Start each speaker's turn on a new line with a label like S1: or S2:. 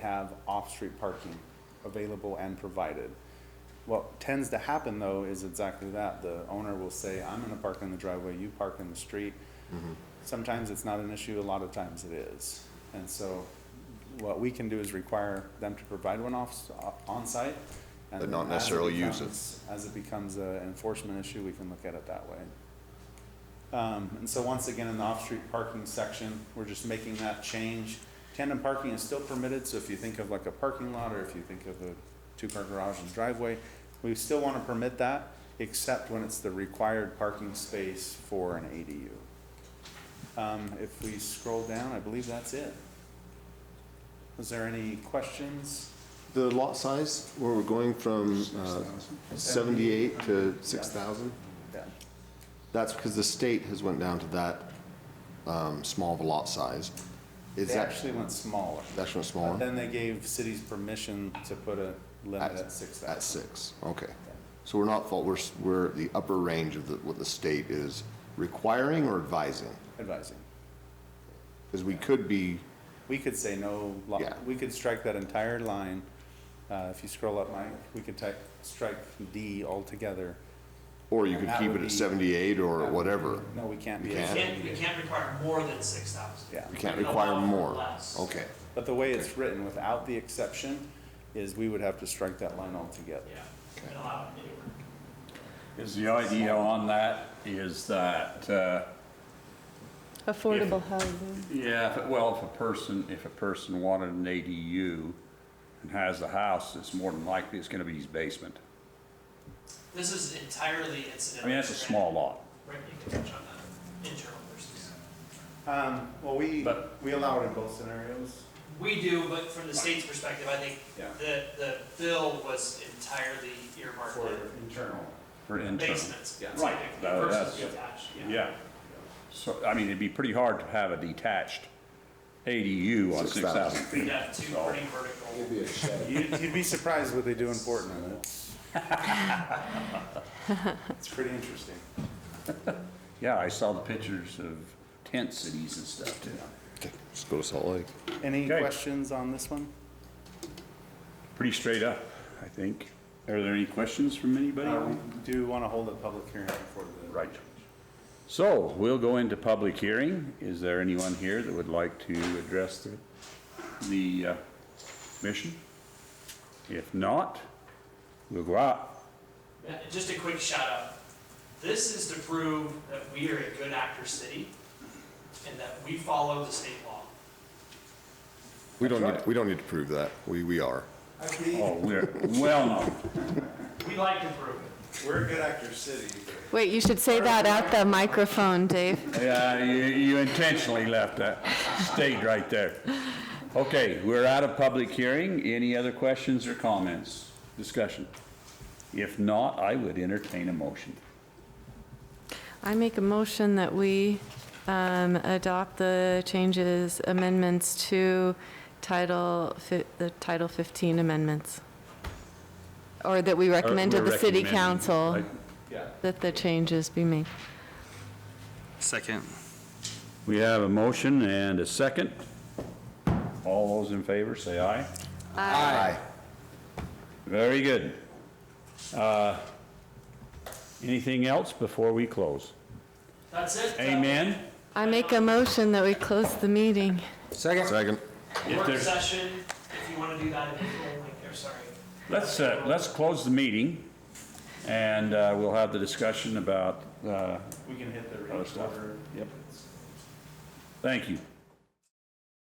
S1: have off-street parking available and provided. What tends to happen though is exactly that. The owner will say, I'm gonna park in the driveway, you park in the street.
S2: Mm-hmm.
S1: Sometimes it's not an issue, a lot of times it is. And so what we can do is require them to provide one off, on-site. and
S2: But not
S1: then as
S2: necessarily use it.
S1: becomes- As it becomes an enforcement issue, we can look at it that way. Um, and so once again, in the off-street parking section, we're just making that change. Tandem parking is still permitted, so if you think of like a parking lot, or if you think of a two-car garage and driveway, we still want to permit that, except when it's the required parking space for an ADU. Um, if we scroll down, I believe that's it. Was there any questions?
S2: The lot size, where we're going from uh, 78 to 6,000,
S1: Yeah.
S2: that's because the state has went down to that um, small of a lot size. Is
S1: They
S2: that,
S1: actually went smaller.
S2: that's not
S1: But
S2: smaller?
S1: then they gave cities permission to put a limit at six thousand.
S2: At six, okay. So we're not, fault. we're, s- we're at the upper range of the- what the state is requiring or advising?
S1: Advising.
S2: Because we could be,
S1: We could say no, lo-
S2: Yeah.
S1: we could strike that entire line. Uh, if you scroll up, Mike, we could type, strike D altogether.
S2: or you could
S1: That
S2: keep
S1: would
S2: it
S1: be-
S2: at 78 or whatever.
S1: No, we can't be.
S2: We can't.
S3: Can't, we can't require more than six thousand.
S1: Yeah.
S2: You can't
S3: We can
S2: require
S3: allow for
S2: more.
S3: less.
S2: Okay.
S1: But the way it's written, without the exception, is we would have to strike that line altogether.
S3: Yeah, we can allow it anywhere.
S4: Is the idea on that is that, uh,
S5: Affordable housing.
S4: yeah, if- well, if a person, if a person wanted an ADU and has a house, it's more than likely it's gonna be his basement.
S3: This is entirely
S4: I
S3: incidental.
S4: mean, that's a small lot.
S3: Right, you can touch on that, internal versus.
S1: Um, well, we,
S4: But-
S1: we allow it in both scenarios.
S3: We do, but from the state's perspective, I think
S1: Yeah.
S3: the, the bill was entirely earmarked for
S1: internal.
S4: for internal.
S3: basements.
S1: Yeah.
S3: Right.
S4: That-
S3: Versus
S4: that's-
S3: detached, yeah.
S4: Yeah. So, I mean, it'd be pretty hard to have a detached ADU on
S2: 6,000.
S4: 6,000
S3: We'd
S4: feet.
S3: have two pretty vertical.
S1: You'd, you'd be surprised what they do in Portland. It's it's pretty interesting.
S4: Yeah, I saw the pictures of tent cities and stuff too.
S2: Okay, Let's go to Salt Lake.
S1: Any
S4: Okay.
S1: questions on this one?
S4: Pretty straight up, I think. Are there any questions from anybody?
S1: Uh, we do want to hold a public hearing before the.
S4: Right. So we'll go into public hearing. Is there anyone here that would like to address the, the uh, commission? If not, we'll go out.
S3: Yeah, and Uh, Just a quick shout out. This is to prove that we are a good actor city and that we follow the state law.
S2: We don't
S4: That's
S2: need, we don't need to prove that. We, we are.
S4: Oh, we're well known.
S3: We like to prove it.
S1: We're a good actor city.
S5: Wait, you should say that at the microphone, Dave.
S4: Yeah, you, you intentionally left that, stayed right there. Okay, we're out of public hearing. Any other questions or comments, discussion? If not, I would entertain a motion.
S5: I make a motion that we um, adopt the changes, amendments to Title, fi- the Title 15 amendments. Or that we recommend to the city council
S1: Yeah.
S5: that the changes be made.
S6: Second.
S4: We have a motion and a second. All those in favor, say aye.
S2: Aye.
S4: Very good. Uh, Anything else before we close?
S3: That's it. Uh,
S4: Amen?
S5: I make a motion that we close the meeting.
S2: Second.
S4: If
S3: Uh, Work
S4: there's-
S3: session, if you want to do that in April, like, or sorry.
S4: Let's, uh, let's close the meeting, and uh, we'll have the discussion about, uh,
S1: We can hit the
S4: Other
S1: range
S4: stuff.
S1: order.
S4: Yep. thank you.